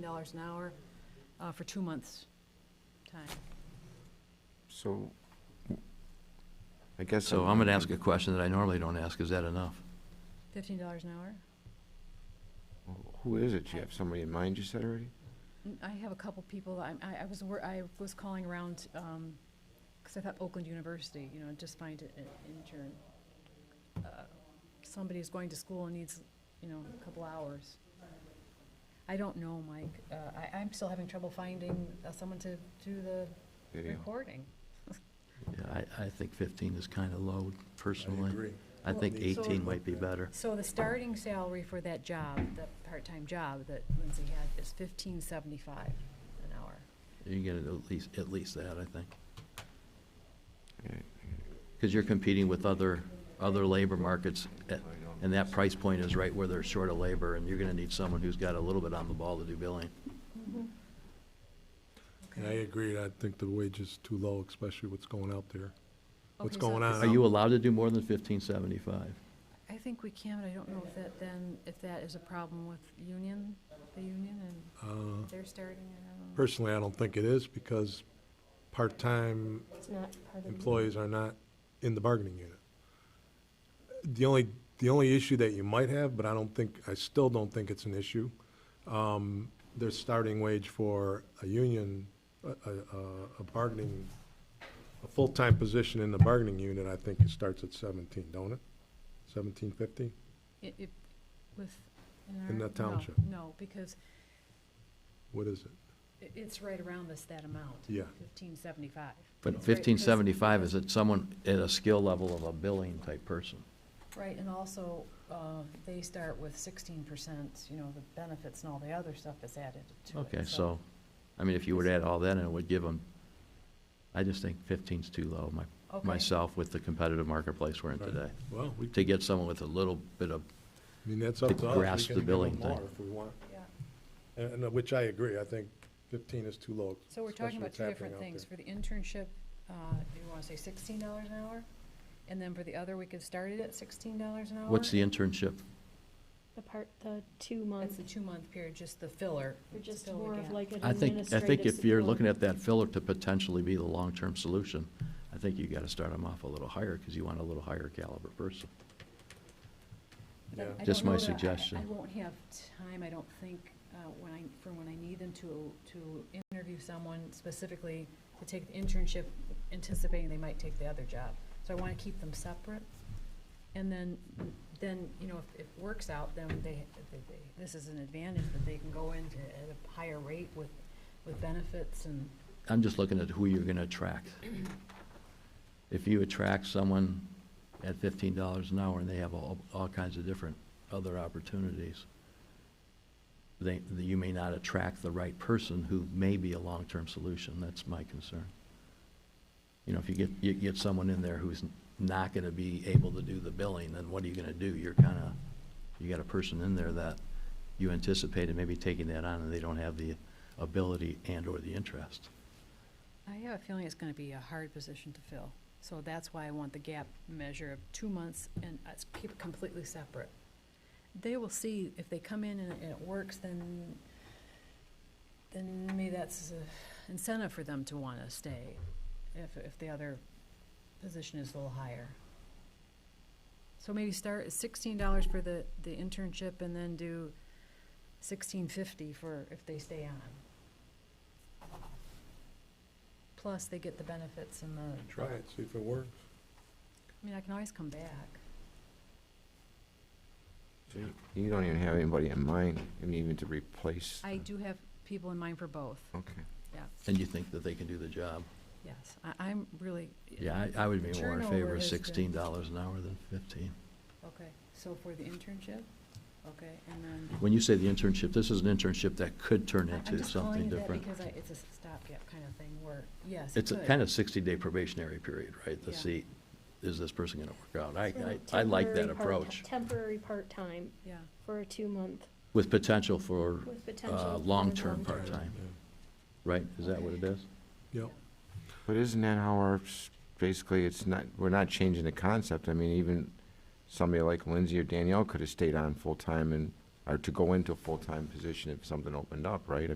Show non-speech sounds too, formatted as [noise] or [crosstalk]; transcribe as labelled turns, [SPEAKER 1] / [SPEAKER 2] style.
[SPEAKER 1] dollars an hour uh, for two months' time.
[SPEAKER 2] So, I guess.
[SPEAKER 3] So I'm gonna ask a question that I normally don't ask, is that enough?
[SPEAKER 1] Fifteen dollars an hour?
[SPEAKER 2] Who is it? Do you have somebody in mind you said already?
[SPEAKER 1] N- Mm, I have a couple people, I, I- I was, wor- I was calling around, um 'cause because I thought Oakland University, you know, just find an an intern. Uh, Somebody who's going to school and needs, you know, a couple hours. I don't know, Mike. Uh, I, I'm still having trouble finding uh, someone to do the
[SPEAKER 2] Video.
[SPEAKER 1] recording.
[SPEAKER 3] Yeah, I, I think fifteen is kinda low personally.
[SPEAKER 4] agree.
[SPEAKER 3] I think
[SPEAKER 1] Well, so-
[SPEAKER 3] eighteen might be better.
[SPEAKER 1] So the starting salary for that job, the part-time job that Lindsay had, is fifteen seventy-five an hour.
[SPEAKER 3] You can get it at least, at least that, I think.
[SPEAKER 2] Yeah.
[SPEAKER 3] Because you're competing with other, other labor markets, at- and that price point is right where they're short of labor, and you're gonna need someone who's got a little bit on the ball to do billing.
[SPEAKER 4] And I agree, I think the wage is too low, especially what's going out there. What's
[SPEAKER 1] Okay, so
[SPEAKER 4] going on?
[SPEAKER 3] Are you allowed to do more than fifteen seventy-five?
[SPEAKER 1] I think we can, but I don't know if that then, if that is a problem with union, the union
[SPEAKER 4] Uh,
[SPEAKER 1] and they're starting, I don't know.
[SPEAKER 4] Personally, I don't think it is, because part-time
[SPEAKER 5] It's not part of the.
[SPEAKER 4] employees are not in the bargaining unit. The only, the only issue that you might have, but I don't think, I still don't think it's an issue, um, their starting wage for a union, a, a, a- a bargaining, a full-time position in the bargaining unit, I think it starts at seventeen, don't it? Seventeen fifty?
[SPEAKER 1] It, it, with.
[SPEAKER 4] In
[SPEAKER 1] our-
[SPEAKER 4] that
[SPEAKER 1] no,
[SPEAKER 4] township.
[SPEAKER 1] No, because
[SPEAKER 4] What is it?
[SPEAKER 1] i it's right around this, that amount.
[SPEAKER 4] Yeah.
[SPEAKER 1] Fifteen seventy-five.
[SPEAKER 3] But fifteen seventy-five is at someone at a skill level of a billing type person.
[SPEAKER 1] Right, and also, uh, they start with sixteen percent, you know, the benefits and all the other stuff that's added to it.
[SPEAKER 3] Okay, so, I mean, if you were to add all that, in, it would give them, I just think fifteen's too low, my,
[SPEAKER 1] Okay.
[SPEAKER 3] myself, with the competitive marketplace we're in today.
[SPEAKER 4] Well, we,
[SPEAKER 3] To get someone with a little bit of,
[SPEAKER 4] I mean, that's up to us. We
[SPEAKER 3] Grasp the
[SPEAKER 4] can give them
[SPEAKER 3] billing
[SPEAKER 4] more
[SPEAKER 3] thing.
[SPEAKER 4] If we want,
[SPEAKER 1] Yeah.
[SPEAKER 4] and, and which I agree, I think fifteen is too low.
[SPEAKER 1] So we're talking
[SPEAKER 4] especially
[SPEAKER 1] about
[SPEAKER 4] what's
[SPEAKER 1] two
[SPEAKER 4] happening
[SPEAKER 1] different
[SPEAKER 4] out
[SPEAKER 1] things. For
[SPEAKER 4] there.
[SPEAKER 1] the internship, uh, you wanna say sixteen dollars an hour? And then for the other, we could start it at sixteen dollars an hour?
[SPEAKER 3] what's the internship?
[SPEAKER 5] The part, the two
[SPEAKER 1] That's
[SPEAKER 5] months,
[SPEAKER 1] the two-month period, just the filler.
[SPEAKER 5] or just
[SPEAKER 1] fill the
[SPEAKER 5] more of
[SPEAKER 1] gap.
[SPEAKER 5] like an
[SPEAKER 3] I think,
[SPEAKER 5] administrative
[SPEAKER 3] I
[SPEAKER 5] support.
[SPEAKER 3] think if you're looking at that filler to potentially be the long-term solution, I think you gotta start them off a little higher, because you want a little higher caliber person.
[SPEAKER 1] But I
[SPEAKER 4] Yeah.
[SPEAKER 1] don't
[SPEAKER 3] Just my
[SPEAKER 1] know that I-
[SPEAKER 3] suggestion.
[SPEAKER 1] I won't have time, I don't think, uh, when I, for when I need them to, to interview someone specifically to take the internship, anticipating they might take the other job. So I want to keep them separate. And then, then, you know, if it works out, then they, they- they- this is an advantage, that they can go in to- at a higher rate with, with benefits and,
[SPEAKER 3] I'm just looking at who you're gonna attract. [clears throat] If you attract someone at fifteen dollars an hour and they have all, all kinds of different other opportunities, they, you may not attract the right person who may be a long-term solution, that's my concern. You know, if you get, you get someone in there who's not gonna be able to do the billing, then what are you gonna do? You're kinda, you got a person in there that you anticipated maybe taking that on and they don't have the ability and/or the interest.
[SPEAKER 1] I have a feeling it's gonna be a hard position to fill, so that's why I want the gap measure of two months and uh, s- keep it completely separate. They will see if they come in and it- and it works, then, then maybe that's an incentive for them to wanna stay, if, if the other position is a little higher. So maybe start at sixteen dollars for the, the internship and then do sixteen fifty for if they stay on. Plus, they get the benefits and the, I
[SPEAKER 4] Try it, see if it works.
[SPEAKER 1] mean, I can always come back.
[SPEAKER 2] So you- You don't even have anybody in mind, I mean, even to replace.
[SPEAKER 1] I
[SPEAKER 2] the-
[SPEAKER 1] do have people in mind for both,
[SPEAKER 2] Okay.
[SPEAKER 1] yeah,
[SPEAKER 3] And you think that they can do the job?
[SPEAKER 1] yes. I, I'm really.
[SPEAKER 3] Yeah, I, I would be more in favor
[SPEAKER 1] Turnover
[SPEAKER 3] of
[SPEAKER 1] is the-
[SPEAKER 3] sixteen dollars an hour than fifteen.
[SPEAKER 1] Okay, so for the internship, okay, and then.
[SPEAKER 3] When you say the internship, this is an internship that could turn
[SPEAKER 1] I-
[SPEAKER 3] into
[SPEAKER 1] I'm just calling it
[SPEAKER 3] something different.
[SPEAKER 1] that because I, it's a stopgap kind of thing where, yes, it
[SPEAKER 3] It's a
[SPEAKER 1] could.
[SPEAKER 3] kind of sixty-day probationary period, right? To
[SPEAKER 1] Yeah.
[SPEAKER 3] see, is this person gonna work out?
[SPEAKER 5] So
[SPEAKER 3] I, I, I like that
[SPEAKER 5] temporary part-
[SPEAKER 3] approach,
[SPEAKER 5] Temporary part-time
[SPEAKER 1] Yeah,
[SPEAKER 5] for a two-month
[SPEAKER 3] with potential for,
[SPEAKER 5] with potential.
[SPEAKER 3] uh,
[SPEAKER 5] for
[SPEAKER 3] long-term
[SPEAKER 5] long-term.
[SPEAKER 3] part-time, right? Is that what it is?
[SPEAKER 4] Yeah. Yep.
[SPEAKER 2] But isn't that how our, s- basically, it's not, we're not changing the concept. I mean, even somebody like Lindsay or Danielle could have stayed on full-time and, or to go into a full-time position if something opened up, right?